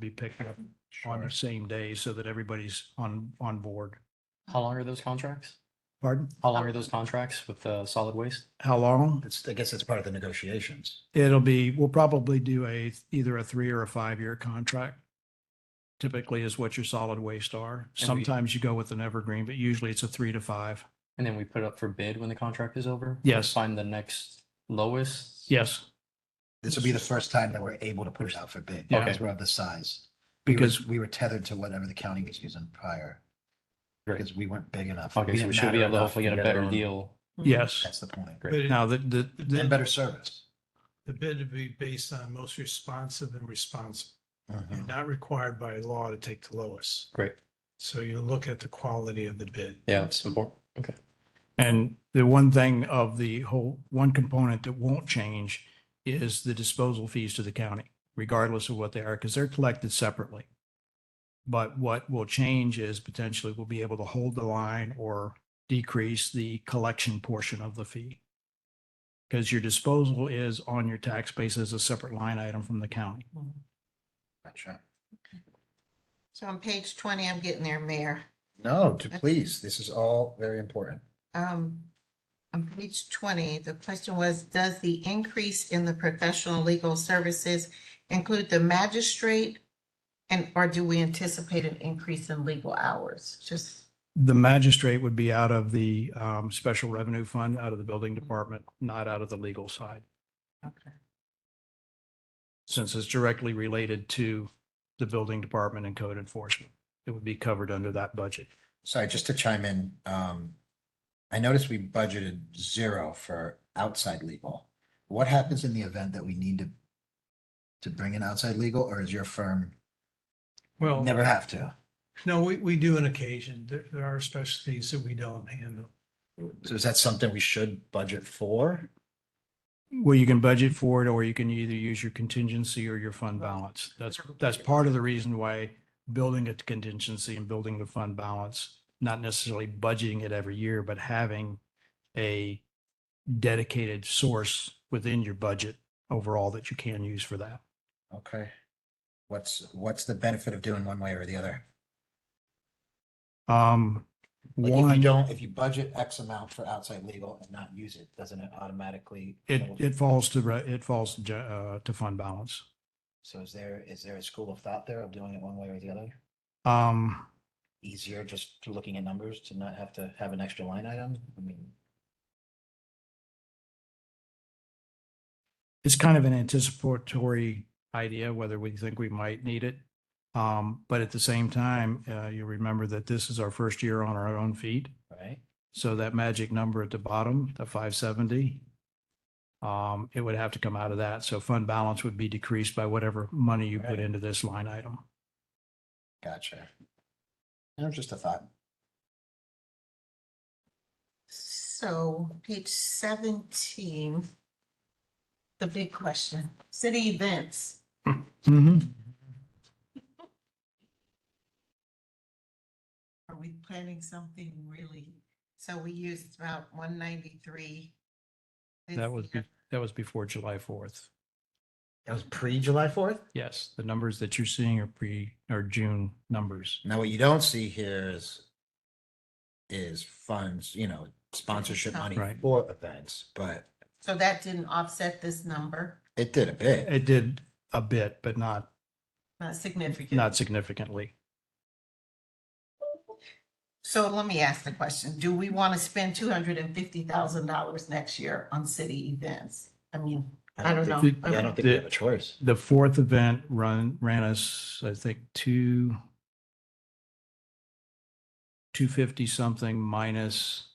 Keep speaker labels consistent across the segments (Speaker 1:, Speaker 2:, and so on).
Speaker 1: be picked up on the same day so that everybody's on, on board.
Speaker 2: How long are those contracts?
Speaker 1: Pardon?
Speaker 2: How long are those contracts with uh, solid waste?
Speaker 1: How long?
Speaker 3: It's, I guess it's part of the negotiations.
Speaker 1: It'll be, we'll probably do a, either a three or a five-year contract. Typically is what your solid waste are.
Speaker 2: we-
Speaker 1: Sometimes you go with an evergreen, but usually it's a three to five.
Speaker 2: And then we put it up for bid when the contract is over?
Speaker 1: Yes.
Speaker 2: Find the next lowest?
Speaker 1: Yes,
Speaker 3: This will be the first time that we're able to put it out for bid
Speaker 1: Yeah.
Speaker 3: because we're of the size. We were-
Speaker 1: because
Speaker 3: We were tethered to whatever the county was using prior.
Speaker 2: Great.
Speaker 3: Because we weren't big enough.
Speaker 2: Okay, so
Speaker 3: didn't
Speaker 2: we should
Speaker 3: matter
Speaker 2: be able to
Speaker 3: enough
Speaker 2: hopefully get a
Speaker 3: get our
Speaker 2: better
Speaker 3: own-
Speaker 2: deal.
Speaker 1: yes.
Speaker 3: That's the point.
Speaker 2: Great.
Speaker 4: But it-
Speaker 1: Now that the,
Speaker 3: And
Speaker 1: the,
Speaker 3: better service.
Speaker 4: the bid would be based on most responsive and responsible. You're
Speaker 3: Mhm.
Speaker 4: not required by law to take the lowest.
Speaker 2: Great.
Speaker 4: So you look at the quality of the bid.
Speaker 2: Yeah, it's important. Okay.
Speaker 1: and the one thing of the whole, one component that won't change is the disposal fees to the county, regardless of what they are, because they're collected separately. But what will change is potentially we'll be able to hold the line or decrease the collection portion of the fee. Because your disposal is on your tax base as a separate line item from the county.
Speaker 3: Gotcha.
Speaker 5: So on page twenty, I'm getting there, Mayor.
Speaker 3: No, to please, this is all very important.
Speaker 5: Um, on page twenty, the question was, does the increase in the professional legal services include the magistrate? And or do we anticipate an increase in legal hours? Just,
Speaker 1: The magistrate would be out of the um, special revenue fund, out of the building department, not out of the legal side,
Speaker 5: okay.
Speaker 1: since it's directly related to the building department and code enforcement. It would be covered under that budget.
Speaker 3: Sorry, just to chime in, um, I noticed we budgeted zero for outside legal. What happens in the event that we need to to bring in outside legal, or is your firm
Speaker 2: Oh.
Speaker 4: Well,
Speaker 3: never have to?
Speaker 4: no, we, we do an occasion. There, there are specialties that we don't handle.
Speaker 3: So is that something we should budget for?
Speaker 1: Well, you can budget for it, or you can either use your contingency or your fund balance. That's, that's part of the reason why building a contingency and building the fund balance, not necessarily budgeting it every year, but having a dedicated source within your budget overall that you can use for that.
Speaker 3: Okay. What's, what's the benefit of doing one way or the other?
Speaker 1: Um,
Speaker 3: Like if you
Speaker 1: one,
Speaker 3: don't, if you budget X amount for outside legal and not use it, doesn't it automatically?
Speaker 1: it, it falls to, re- it falls to, ge- uh, to fund balance.
Speaker 3: So is there, is there a school of thought there of doing it one way or the other?
Speaker 1: Um,
Speaker 3: Easier just through looking at numbers to not have to have an extra line item? I mean,
Speaker 1: it's kind of an anticipatory idea whether we think we might need it. Um, but at the same time, uh, you remember that this is our first year on our own feet.
Speaker 3: right?
Speaker 1: So that magic number at the bottom, the five seventy, um, it would have to come out of that. So fund balance would be decreased by whatever money you put
Speaker 3: Right.
Speaker 1: into this line item.
Speaker 3: Gotcha. That was just a thought.
Speaker 5: So page seventeen. The big question, city events. Are we planning something really? So we used about one ninety-three.
Speaker 1: That was, be- that was before July fourth.
Speaker 3: That was pre-July fourth?
Speaker 1: Yes, the numbers that you're seeing are pre, are June numbers.
Speaker 3: Now, what you don't see here is is funds, you know, sponsorship money
Speaker 1: Right.
Speaker 3: for events, but
Speaker 5: So that didn't offset this number,
Speaker 3: it did a bit.
Speaker 1: It did a bit, but not,
Speaker 5: not significant.
Speaker 1: not significantly.
Speaker 5: So let me ask the question, do we want to spend two hundred and fifty thousand dollars next year on city events? I mean, I don't know.
Speaker 3: think-
Speaker 1: know.
Speaker 3: yeah, I don't think we have a choice.
Speaker 1: The fourth event run, ran us, I think, two, two fifty something minus,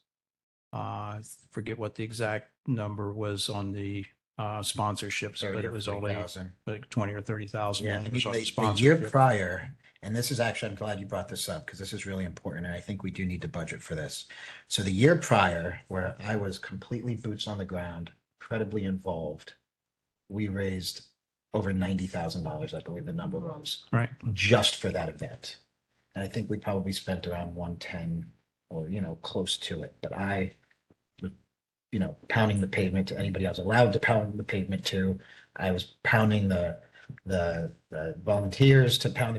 Speaker 1: uh, forget what the exact number was on the, uh, sponsorships, but
Speaker 3: 30 or
Speaker 1: it was only
Speaker 3: 40,000.
Speaker 1: like twenty or thirty thousand.
Speaker 3: Yeah, I mean, the- the year prior, and this is actually, I'm glad you brought this up because this is really important and I think we do need to budget for this. So the year prior, where I was completely boots on the ground, incredibly involved, we raised over ninety thousand dollars, I believe the number was.
Speaker 1: Right.
Speaker 3: just for that event. And I think we probably spent around one ten or, you know, close to it, but I was, you know, pounding the pavement to anybody I was allowed to pound the pavement to. I was pounding the the the volunteers to pound